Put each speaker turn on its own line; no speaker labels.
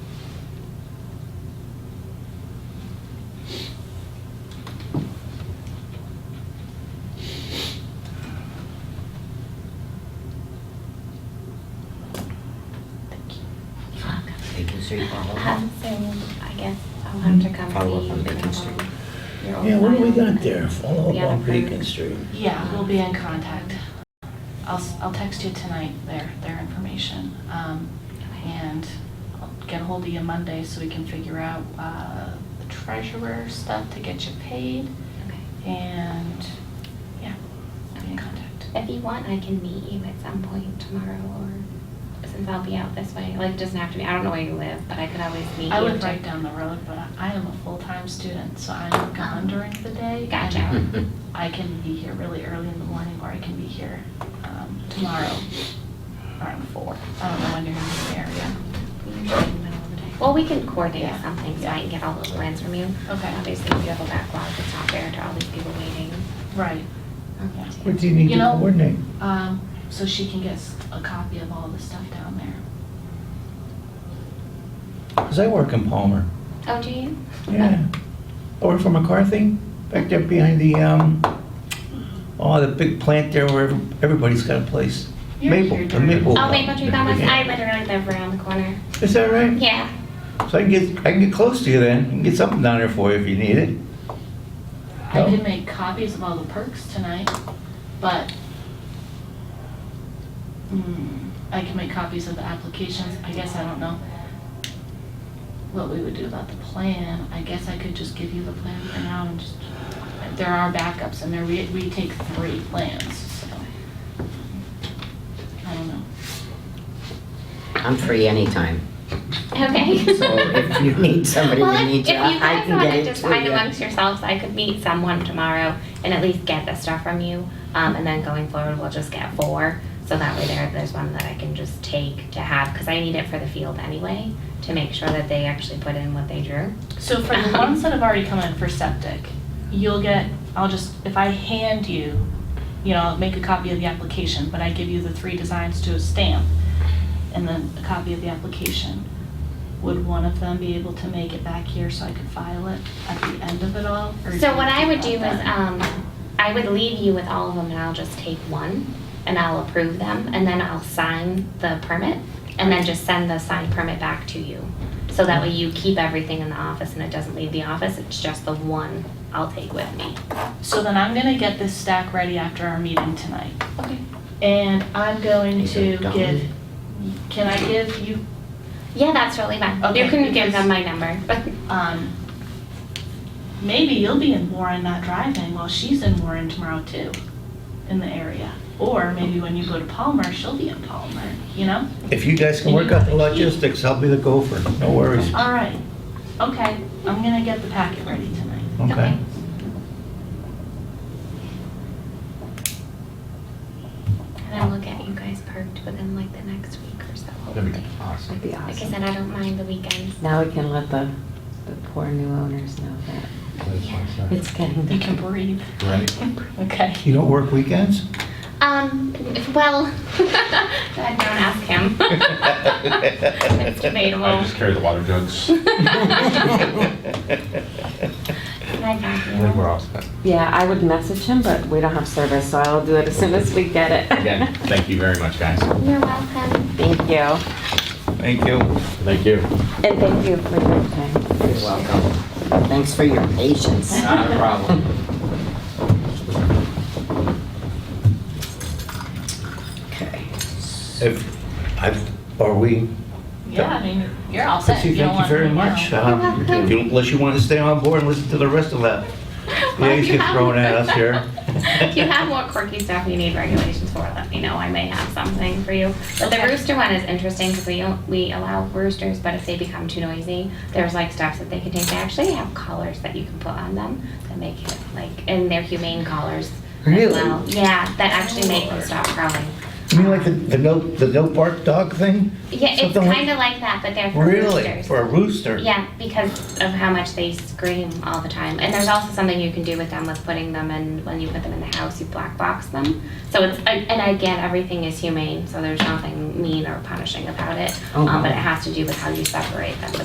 State Farm.
Um, so I guess I'll have to come
Mm-hmm. Follow up
see you.
on Beacon
um,
Street.
your
Yeah, what do we
old man
got there?
and
Follow
the
up on
other
Beacon
person.
Street.
Yeah, we'll be in contact. I'll, s- I'll text you tonight their, their information. Um, And I'll get ahold of you Monday so we can figure out uh, the treasurer stuff to get you paid.
Okay.
And, yeah, be in
Okay.
contact.
If you want, I can meet you at some point tomorrow or, since I'll be out this way, like, it doesn't have to be, I don't know where you live, but I could always meet you.
I live
to-
right down the road, but I- I am a full-time student, so I'm gone during the day.
Gotcha.
And I can be here really early in the morning, or I can be here um, tomorrow around four. I don't know when you're in the area.
Usually in the middle of the day. Well, we can coordinate
Yeah.
something, so I can get all those plans from you.
Okay.
Obviously, if you have a backlog, it's not fair to all these people waiting.
Right.
Okay.
What do you need
You
to
know-
coordinate?
Um, So she can get s- a copy of all the stuff down there.
Because I work in Palmer.
Oh, do you?
Yeah. I work for McCarthy, back there behind the, um, oh, the big plant there where everybody's got a place.
You're
Maple,
here
the maple.
Oh, Maple Tree Commons, I
Yeah.
literally live around the corner.
Is that right?
Yeah.
So I can get, I can get close to you then, I can get something down there for you if you need it.
I
No?
can make copies of all the perks tonight, but mm, I can make copies of the applications. I guess I don't know what we would do about the plan. I guess I could just give you the plan for now and just, there are backups and there, we, we take three plans, so. I don't know.
I'm free anytime.
Okay.
So if you need somebody,
Well,
we
if-
need you.
If
I
you
I
guys
can
want
get
to
it
decide
to
amongst yourselves, I could meet someone tomorrow and at least get the stuff from you. Um, and then going forward, we'll just get four. So that way there, there's one that I can just take to have, because I need it for the field anyway, to make sure that they actually put in what they drew.
So for the ones that have already come in for septic, you'll get, I'll just, if I hand you, you know, I'll make a copy of the application, but I give you the three designs to a stamp and then a copy of the application. Would one of them be able to make it back here so I could file it at the end of it all? or
So what I
you
would do is,
think about that?
um, I would leave you with all of them and I'll just take one and I'll approve them and then I'll sign the permit and then just send the signed permit back to you. So that way you keep everything in the office and it doesn't leave the office, it's just the one I'll take with me.
So then I'm gonna get this stack ready after our meeting tonight.
Okay.
And I'm going
Is
to
it done?
give, can I give you
Yeah, that's really fine. You
Okay,
can give
because-
them my number.
um, maybe you'll be in Warren not driving while she's in Warren tomorrow too, in the area. Or maybe when you go to Palmer, she'll be in Palmer, you know?
If you guys can
You
work out the
have a key.
logistics, I'll be the gopher, no worries.
All right, okay, I'm gonna get the packet ready tonight.
Okay.
And then we'll get you guys perked within like the next week or so,
That'd be
hopefully.
awesome.
That'd be
Like I
awesome.
said, I don't mind the weekends.
Now we can let the, the poor new owners know that
you.
it's getting
You can
better.
breathe.
Right.
Okay.
You don't work weekends?
Um, well, I don't ask him. It's debatable.
I just carry the water jugs.
Can I thank
I
you?
think we're all set.
Yeah, I would message him, but we don't have service, so I'll do it as soon as we get it.
Again, thank you very much, guys.
You're welcome.
Thank you.
Thank you.
Thank you.
And thank you for your time.
You're welcome. Thanks for your patience.
Not a problem.
Okay.
If, I, are we?
Yeah, I mean, you're all set.
Chrissy,
don't
thank you
want
very
anything
much.
else.
Um, if you- Unless you want to stay on board and listen to the rest of that. Yeah, you get thrown at us here.
If you have more quirky stuff you need regulations for, let me know. I may have something for you. But the
Okay.
rooster one is interesting because we don't, we allow roosters, but if they become too noisy, there's like stuff that they can take. They actually have collars that you can put on them that make it like, and they're humane collars
Really?
as well. Yeah, that actually make them stop growling.
You mean like the, the no, the no bark dog thing?
Yeah, it's
Something like-
kind of like that, but they're for
Really?
roosters.
For a rooster?
Yeah, because of how much they scream all the time. And there's also something you can do with them with putting them in, when you put them in the house, you black box them. So it's, and and again, everything is humane, so there's nothing mean or punishing about it.
Oh,
Um, But
wow.
it has to do with how you separate them.